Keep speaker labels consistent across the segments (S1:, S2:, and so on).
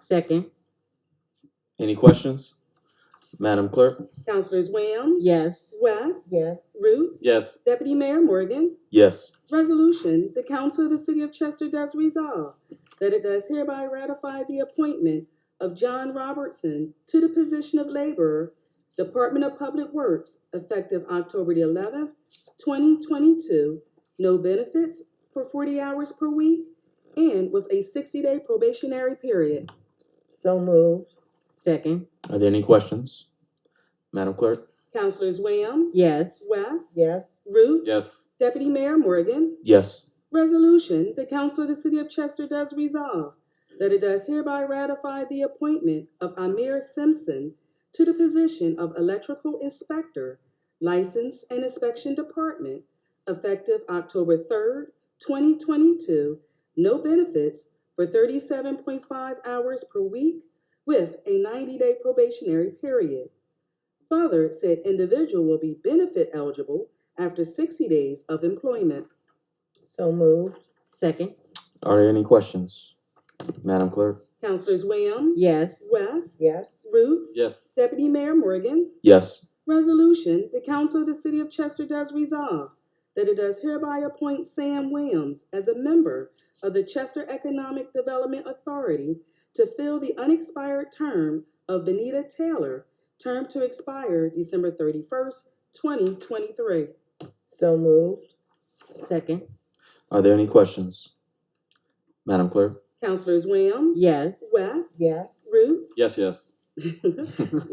S1: Second.
S2: Any questions? Madam Clerk?
S3: Councilors Williams?
S1: Yes.
S3: West?
S1: Yes.
S3: Roots?
S2: Yes.
S3: Deputy Mayor Morgan?
S2: Yes.
S3: Resolution, the Council of the City of Chester does resolve that it does hereby ratify the appointment of John Robertson to the position of Laborer, Department of Public Works, effective October the eleventh, twenty twenty-two. No benefits for forty hours per week and with a sixty-day probationary period.
S1: So moved. Second.
S2: Are there any questions? Madam Clerk?
S3: Councilors Williams?
S1: Yes.
S3: West?
S1: Yes.
S3: Roots?
S2: Yes.
S3: Deputy Mayor Morgan?
S2: Yes.
S3: Resolution, the Council of the City of Chester does resolve that it does hereby ratify the appointment of Amir Simpson to the position of Electrical Inspector, License and Inspection Department, effective October third, twenty twenty-two. No benefits for thirty-seven point five hours per week with a ninety-day probationary period. Further, said individual will be benefit eligible after sixty days of employment.
S1: So moved. Second.
S2: Are there any questions? Madam Clerk?
S3: Councilors Williams?
S1: Yes.
S3: West?
S1: Yes.
S3: Roots?
S2: Yes.
S3: Deputy Mayor Morgan?
S2: Yes.
S3: Resolution, the Council of the City of Chester does resolve that it does hereby appoint Sam Williams as a member of the Chester Economic Development Authority to fill the unexpired term of Benita Taylor, term to expire December thirty-first, twenty twenty-three.
S1: So moved. Second.
S2: Are there any questions? Madam Clerk?
S3: Councilors Williams?
S1: Yes.
S3: West?
S1: Yes.
S3: Roots?
S2: Yes, yes.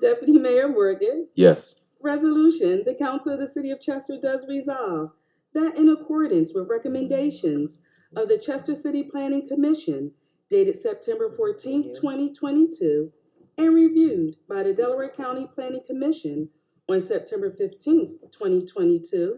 S3: Deputy Mayor Morgan?
S2: Yes.
S3: Resolution, the Council of the City of Chester does resolve that in accordance with recommendations of the Chester City Planning Commission dated September fourteenth, twenty twenty-two, and reviewed by the Delaware County Planning Commission on September fifteenth, twenty twenty-two,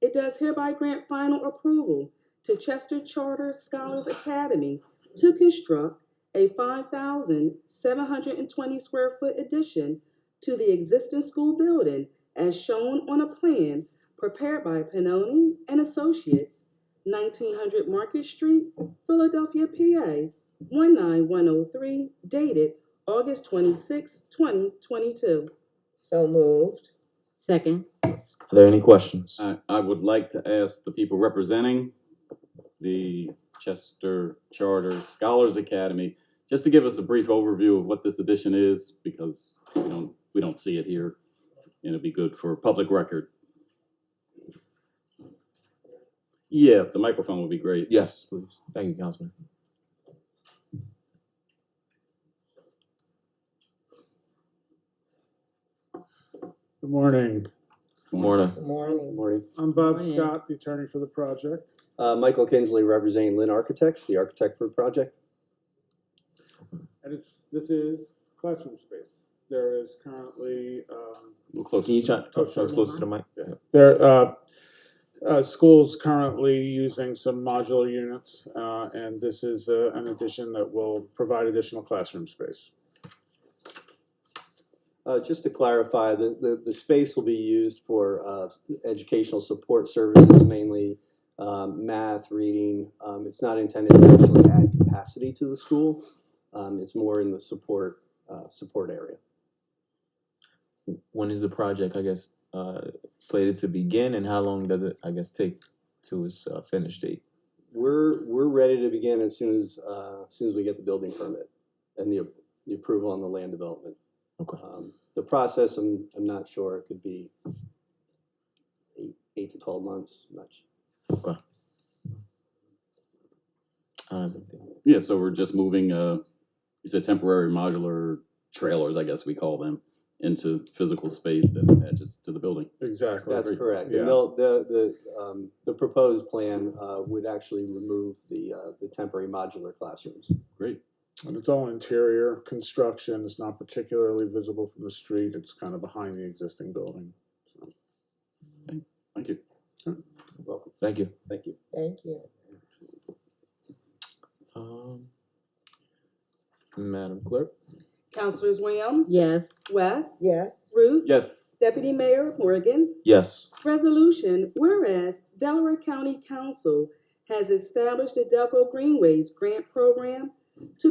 S3: it does hereby grant final approval to Chester Charter Scholars Academy to construct a five thousand seven hundred and twenty square foot addition to the existing school building as shown on a plan prepared by Pannoni and Associates, 1900 Market Street, Philadelphia, PA, 19103, dated August 26, 2022.
S1: So moved. Second.
S2: Are there any questions?
S4: I, I would like to ask the people representing the Chester Charter Scholars Academy, just to give us a brief overview of what this edition is, because we don't, we don't see it here. And it'd be good for public record. Yeah, the microphone would be great.
S2: Yes, please. Thank you, Councilman.
S5: Good morning.
S2: Morning.
S1: Good morning.
S6: Morning.
S5: I'm Bob
S1: Morning.
S5: Scott, the attorney for the project.
S6: Uh, Michael Kinsley representing Lynn Architects, the architect for the project.
S5: And it's, this is classroom space. There is currently, um,
S4: A little closer.
S2: Can you try, talk, talk closer to the mic? Yeah.
S5: there, uh, uh, schools currently using some modular units, uh, and this is uh, an addition that will provide additional classroom space.
S6: Uh, just to clarify, the, the, the space will be used for uh, educational support services, mainly um, math, reading. Um, it's not intended to actually add capacity to the school. Um, it's more in the support uh, support area.
S2: When is the project, I guess, uh, slated to begin and how long does it, I guess, take to its uh, finish date?
S6: We're we're ready to begin as soon as uh, as soon as we get the building permit and the, the approval on the land development.
S2: Okay.
S6: Um, the process, I'm I'm not sure. It could be eight eight to twelve months. Much.
S2: Uh,
S4: Yeah, so we're just moving, uh, it's a temporary modular trailers, I guess we call them, into physical space that attaches to the building.
S5: Exactly.
S6: That's correct.
S5: Yeah.
S6: And they'll, the the um, the proposed plan uh, would actually remove the uh, the temporary modular classrooms.
S4: Great.
S5: And it's all interior construction. It's not particularly visible from the street. It's kind of behind the existing building.
S4: Thank you.
S6: Welcome.
S2: Thank you.
S6: Thank you.
S1: Thank you.
S2: Um, Madam Clerk?
S3: Councilors Williams?
S1: Yes.
S3: West?
S1: Yes.
S3: Roots?
S4: Yes.
S3: Deputy Mayor Morgan?
S2: Yes.
S3: Resolution, whereas Delaware County Council has established the Delco Greenways Grant Program to